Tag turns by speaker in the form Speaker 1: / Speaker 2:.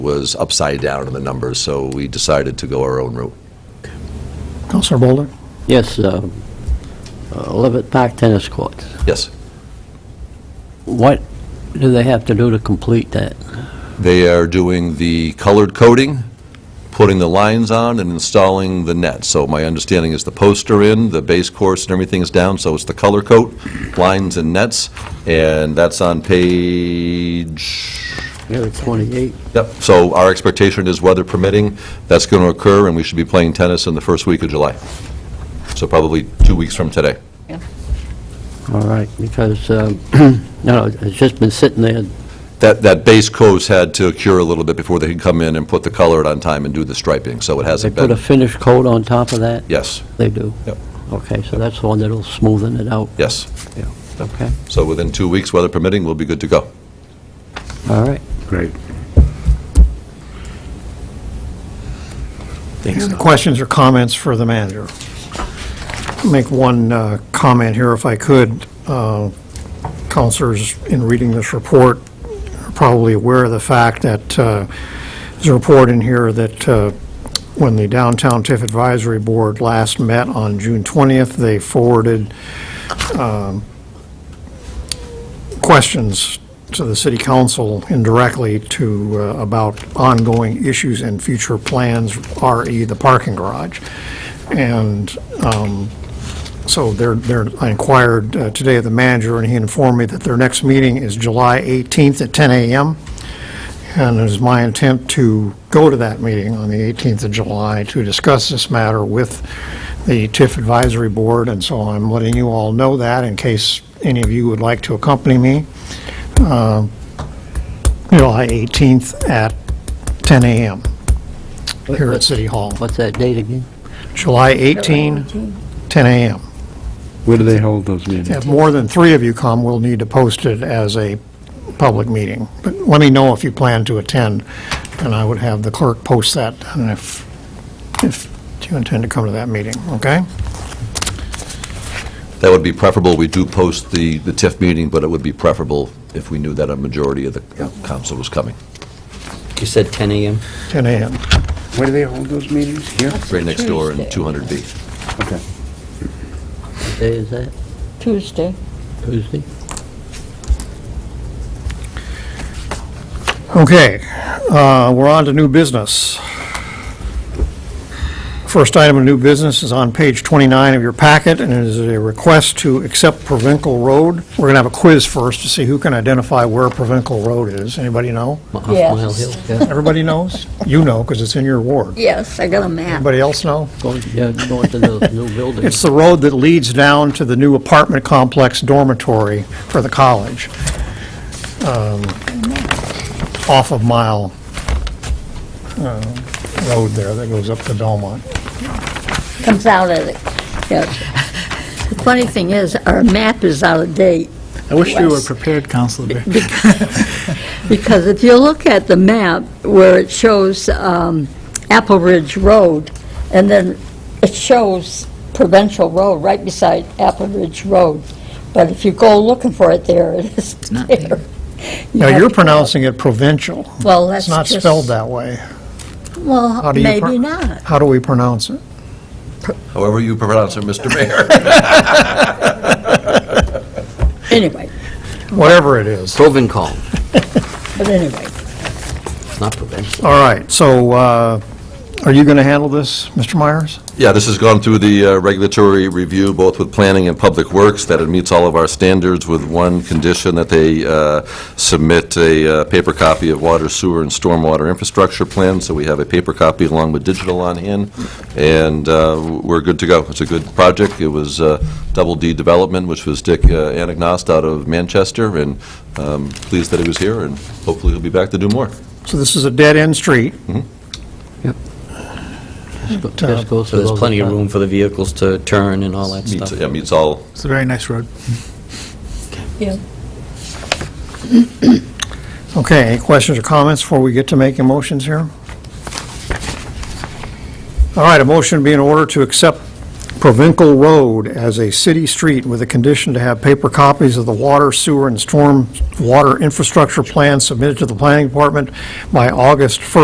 Speaker 1: was upside down in the numbers, so we decided to go our own route.
Speaker 2: Counselor Boulder?
Speaker 3: Yes, uh, uh, Levitt Park Tennis Courts.
Speaker 1: Yes.
Speaker 3: What do they have to do to complete that?
Speaker 1: They are doing the colored coating, putting the lines on, and installing the net. So my understanding is the posts are in, the base course and everything is down, so it's the color coat, lines and nets, and that's on page,
Speaker 3: Yeah, 28.
Speaker 1: yep. So our expectation is weather permitting, that's going to occur, and we should be playing tennis in the first week of July. So probably two weeks from today.
Speaker 3: All right, because, um, you know, it's just been sitting there.
Speaker 1: That, that base coat had to cure a little bit before they could come in and put the color on time and do the striping, so it
Speaker 3: They
Speaker 1: hasn't
Speaker 3: put a
Speaker 1: been,
Speaker 3: finish coat on top of that?
Speaker 1: yes,
Speaker 3: They do?
Speaker 1: Yep.
Speaker 3: Okay, so that's the one that'll smoothen it out?
Speaker 1: yes.
Speaker 3: Okay,
Speaker 1: So within two weeks, weather permitting, we'll be good to go.
Speaker 3: all right.
Speaker 4: Great.
Speaker 2: Any questions or comments for the manager? Make one uh, comment here if I could. Uh, Counselors, in reading this report, are probably aware of the fact that uh, there's a report in here that uh, when the Downtown TIF Advisory Board last met on June 20th, they forwarded questions to the city council indirectly to, uh, about ongoing issues and future plans, RE the parking garage. And um, so they're, they're, I inquired uh, today of the manager, and he informed me that their next meeting is July 18th at 10 a.m. And it is my intent to go to that meeting on the 18th of July to discuss this matter with the TIF Advisory Board, and so I'm letting you all know that in case any of you would like to accompany me. Uh, July 18th at 10 a.m. here at City Hall.
Speaker 3: What's that date again?
Speaker 2: July 18, 10 a.m.
Speaker 4: Where do they hold those meetings?
Speaker 2: If more than three of you come, we'll need to post it as a public meeting. But let me know if you plan to attend, and I would have the clerk post that, and if, if you intend to come to that meeting, okay?
Speaker 1: That would be preferable, we do post the, the TIF meeting, but it would be preferable if we knew that a majority of the council was coming,
Speaker 5: You said 10 AM?
Speaker 2: 10 a.m.
Speaker 4: Where do they hold those meetings? Here?
Speaker 1: right next door in
Speaker 6: Tuesday.
Speaker 1: 200B.
Speaker 4: Okay.
Speaker 3: What day is that?
Speaker 6: Tuesday.
Speaker 3: Tuesday?
Speaker 2: Okay, uh, we're on to new business. First item of new business is on page 29 of your packet, and it is a request to accept Provincial Road. We're going to have a quiz first to see who can identify where Provincial Road is. Anybody know?
Speaker 3: Mi- off
Speaker 6: Yes.
Speaker 3: Mile Hill, yeah.
Speaker 2: Everybody knows? You know, because it's in your ward.
Speaker 6: Yes, I got a map.
Speaker 2: Anybody else know?
Speaker 3: Going- Yeah, going to the new building.
Speaker 2: It's the road that leads down to the new apartment complex dormitory for the college, um, off of Mile uh, Road there that goes up to Belmont.
Speaker 6: Comes out of it. Yes. The funny thing is, our map is out of date.
Speaker 7: I wish we were
Speaker 6: West.
Speaker 7: prepared, Counselor Bear.
Speaker 6: Because if you look at the map where it shows um, Apple Ridge Road, and then it shows Provincial Road right beside Apple Ridge Road. But if you go looking for it there, it is
Speaker 7: not
Speaker 6: there. You
Speaker 2: Now,
Speaker 6: have
Speaker 2: you're
Speaker 6: to go-
Speaker 2: pronouncing it provincial.
Speaker 6: Well, that's
Speaker 2: It's not
Speaker 6: just-
Speaker 2: spelled that way. How
Speaker 6: Well,
Speaker 2: do you pro-
Speaker 6: maybe not.
Speaker 2: How do we pronounce it?
Speaker 1: However you pronounce it, Mr. Mayor.
Speaker 6: Anyway,
Speaker 2: Whatever it is.
Speaker 3: Provencal,
Speaker 6: but anyway,
Speaker 3: not Provencal.
Speaker 2: All right, so uh, are you going to handle this, Mr. Myers?
Speaker 1: Yeah, this has gone through the uh, regulatory review, both with planning and public works, that it meets all of our standards with one condition, that they uh, submit a uh, paper copy of water, sewer, and stormwater infrastructure plan, so we have a paper copy along with digital on hand, and uh, we're good to go. It's a good project. It was uh, Double D Development, which was Dick uh, Anagnost out of Manchester, and um, pleased that he was here, and hopefully he'll be back to do more.
Speaker 2: So this is a dead-end street.
Speaker 3: Just goes
Speaker 5: So
Speaker 3: to
Speaker 5: uh, there's
Speaker 3: those
Speaker 5: plenty of
Speaker 3: apartments.
Speaker 5: room for the vehicles to turn and all that
Speaker 1: Meets-
Speaker 5: stuff?
Speaker 1: Yeah, meets all,
Speaker 7: It's a very nice road.
Speaker 6: yeah.
Speaker 2: Okay, any questions or comments before we get to making motions here? All right, a motion would be in order to accept Provincial Road as a city street with a condition to have paper copies of the water, sewer, and storm water infrastructure plan submitted to the planning department by August 1st.